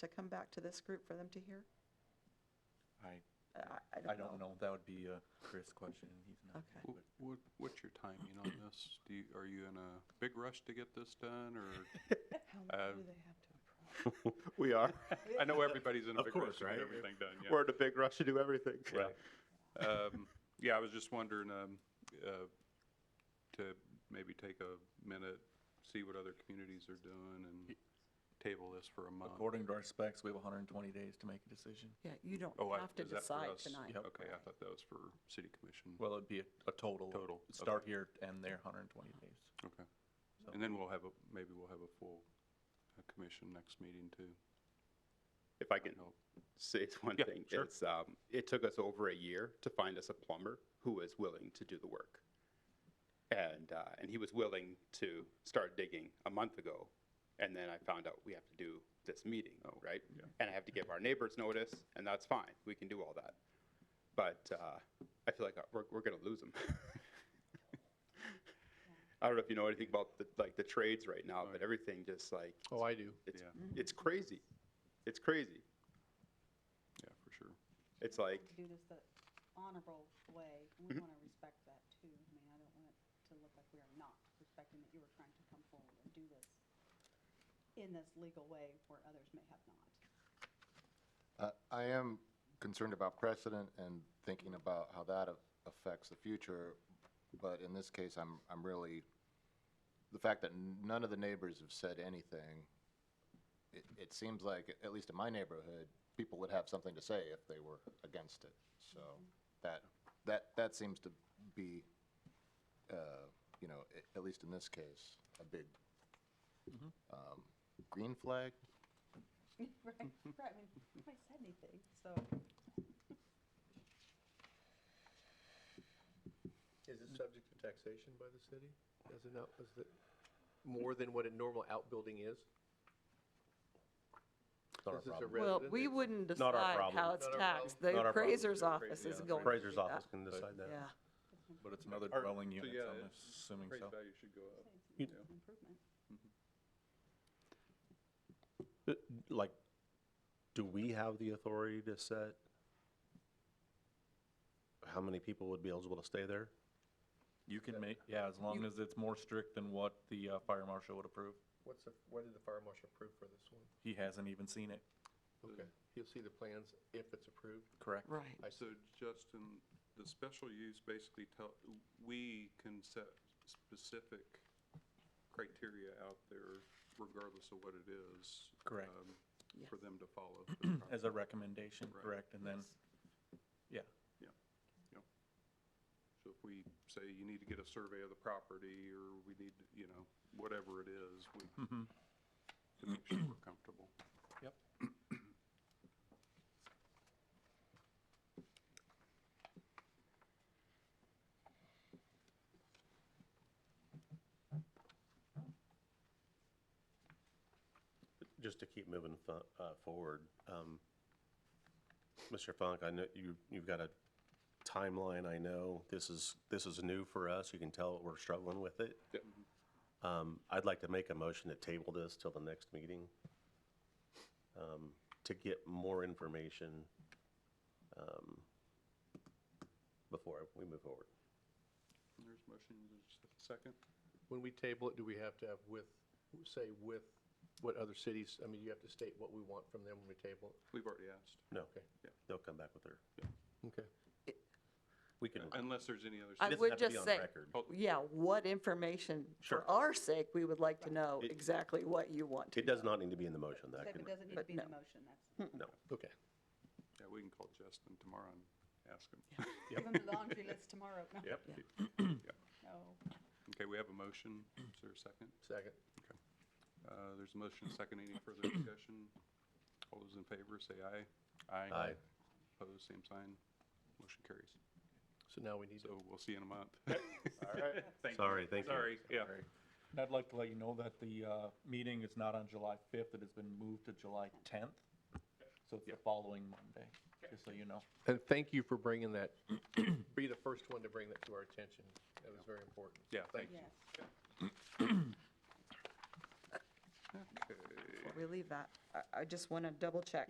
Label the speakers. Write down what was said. Speaker 1: to come back to this group for them to hear?
Speaker 2: I,
Speaker 1: I-
Speaker 2: I don't know, that would be a Chris question, and he's not.
Speaker 1: Okay.
Speaker 2: here,
Speaker 3: What, what's your timing on this? Do you, are you in a big rush to get this done, or?
Speaker 1: How
Speaker 3: Uh,
Speaker 1: long do they have to approve?
Speaker 4: We are.
Speaker 3: I know everybody's in a
Speaker 4: Of
Speaker 3: big rush
Speaker 4: course,
Speaker 3: to get
Speaker 4: right?
Speaker 3: everything done, yeah.
Speaker 4: We're in a big rush to do everything.
Speaker 3: Right. Um, Yeah, I was just wondering um, uh, to maybe take a minute, see what other communities are doing and table this for a
Speaker 2: but
Speaker 3: month.
Speaker 2: According to our specs, we have hundred and twenty days to make a decision.
Speaker 1: Yeah, you don't
Speaker 3: Oh, I-
Speaker 1: have to
Speaker 3: is that for
Speaker 1: decide
Speaker 3: us?
Speaker 1: tonight.
Speaker 2: Yep.
Speaker 3: Okay, I thought that was for city commission.
Speaker 2: Well, it'd be a, a total.
Speaker 3: Total, okay.
Speaker 2: Start here and there, hundred and twenty days.
Speaker 3: Okay.
Speaker 2: So-
Speaker 3: And then we'll have a, maybe we'll have a full uh, commission next meeting too.
Speaker 4: If I
Speaker 3: I
Speaker 4: can
Speaker 3: hope.
Speaker 4: say one
Speaker 3: Yeah,
Speaker 4: thing,
Speaker 3: sure.
Speaker 4: it's, um, it took us over a year to find us a plumber who was willing to do the work. And, uh, and he was willing to start digging a month ago. And then I found out we have to do this meeting, right? And I have to give our neighbors notice, and that's fine. We can do all that. But, uh, I feel like we're, we're gonna lose them. I don't know if you know anything about the, like the trades right now, but everything just like,
Speaker 5: Oh, I do.
Speaker 4: it's,
Speaker 3: Yeah.
Speaker 4: it's crazy. It's crazy.
Speaker 3: Yeah, for sure.
Speaker 4: It's
Speaker 6: We want
Speaker 4: like- Mm-hmm.
Speaker 6: to Do this the honorable way, and we want to respect that too. I mean, I don't want it to look like we are not respecting that you were trying to come forward and do this in this legal way where others may have not.
Speaker 7: Uh, I am concerned about precedent and thinking about how that a- affects the future, but in this case, I'm, I'm really, the fact that none of the neighbors have said anything, it, it seems like, at least in my neighborhood, people would have something to say if they were against it. So that, that, that seems to be, uh, you know, a- at least in this case, a big um, green flag,
Speaker 6: Right, right, I mean, nobody said anything, so.
Speaker 5: Is it subject to taxation by the city? Is it not, is it more than what a normal outbuilding is?
Speaker 7: It's not our
Speaker 5: This is a
Speaker 1: Well,
Speaker 7: problem.
Speaker 5: resident,
Speaker 1: we
Speaker 5: it's-
Speaker 1: wouldn't
Speaker 8: Not our
Speaker 1: decide how
Speaker 8: problem.
Speaker 1: it's
Speaker 5: Not our
Speaker 1: taxed. The
Speaker 5: problem.
Speaker 8: Not our problem.
Speaker 1: appraiser's
Speaker 8: Yeah,
Speaker 1: office is
Speaker 2: yeah,
Speaker 1: going to do
Speaker 8: Appraiser's office
Speaker 1: that.
Speaker 8: can decide that.
Speaker 1: Yeah.
Speaker 2: But it's another
Speaker 3: Our-
Speaker 2: dwelling
Speaker 3: so
Speaker 2: unit,
Speaker 3: yeah,
Speaker 2: so I'm
Speaker 3: it-
Speaker 2: assuming so.
Speaker 3: Appraised value should go up.
Speaker 6: say it's
Speaker 3: You-
Speaker 6: an Improvement.
Speaker 8: Uh, Like, do we have the authority to set how many people would be eligible to stay there?
Speaker 2: You can make, yeah, as long as it's more strict than what the, uh, fire marshal would approve.
Speaker 5: What's the, what did the fire marshal approve for this one?
Speaker 2: He hasn't even seen it,
Speaker 5: Okay, he'll see the plans if it's approved.
Speaker 2: correct?
Speaker 1: Right.
Speaker 5: I
Speaker 3: So Justin, the special use basically tell, we can set specific criteria out there regardless of what it is.
Speaker 2: Correct.
Speaker 3: um, For
Speaker 1: Yes.
Speaker 3: them to follow. for the
Speaker 2: As a
Speaker 3: project.
Speaker 2: recommendation,
Speaker 3: Right.
Speaker 2: correct, and then, yeah,
Speaker 3: Yeah, yeah. So if we say you need to get a survey of the property, or we need, to, you know, whatever it is, we,
Speaker 2: mm-hmm.
Speaker 3: to make sure we're comfortable.
Speaker 2: yep.
Speaker 8: Just to keep moving fo- uh, forward, um, Mr. Funk, I know you, you've got a timeline, I know this is, this is new for us, you can tell we're struggling with it.
Speaker 4: Yep.
Speaker 8: Um, I'd like to make a motion to table this till the next meeting um, to get more information um, before we move forward.
Speaker 3: There's motion, there's a second.
Speaker 5: When we table it, do we have to have with, say with what other cities, I mean, you have to state what we want from them when we table
Speaker 3: We've already asked.
Speaker 8: No,
Speaker 5: Okay.
Speaker 3: Yeah.
Speaker 8: they'll come back with their,
Speaker 5: it? Okay.
Speaker 8: we can, it
Speaker 3: Unless there's any other.
Speaker 1: I
Speaker 8: doesn't
Speaker 1: would
Speaker 8: have to be
Speaker 1: just
Speaker 8: on
Speaker 1: say- oh,
Speaker 8: record. Oh,
Speaker 1: Yeah, what information,
Speaker 8: Sure.
Speaker 1: for our sake, we would like to know
Speaker 8: It-
Speaker 1: exactly what you want to
Speaker 8: It does not need to be in the motion, that
Speaker 6: Except
Speaker 8: can,
Speaker 6: it doesn't need to
Speaker 1: But
Speaker 6: be in the
Speaker 1: no.
Speaker 6: motion, that's,
Speaker 8: no.
Speaker 5: Okay.
Speaker 3: Yeah, we can call Justin tomorrow and ask him.
Speaker 6: give them the laundry list tomorrow. No,
Speaker 3: Yep. Yep.
Speaker 6: No,
Speaker 3: Okay, we have a motion. Is there a second?
Speaker 5: Second.
Speaker 3: Okay. Uh, There's a motion, a second. Any further discussion? All those in favor, say aye.
Speaker 8: Aye.
Speaker 3: Opposed, same sign. Motion carries.
Speaker 5: So now we need to,
Speaker 3: So we'll see you in a month.
Speaker 8: you. Sorry, thank you.
Speaker 3: Sorry, yeah.
Speaker 2: And I'd like to let you know that the uh, meeting is not on July 5th, it has been moved to July 10th. So it's the following Monday, just so you know.
Speaker 5: and thank you for bringing that, be the first one to bring that to our attention. That was very important.
Speaker 3: Yeah, thank
Speaker 6: yes.
Speaker 3: Okay.
Speaker 1: relieve that. I, I just want to double check.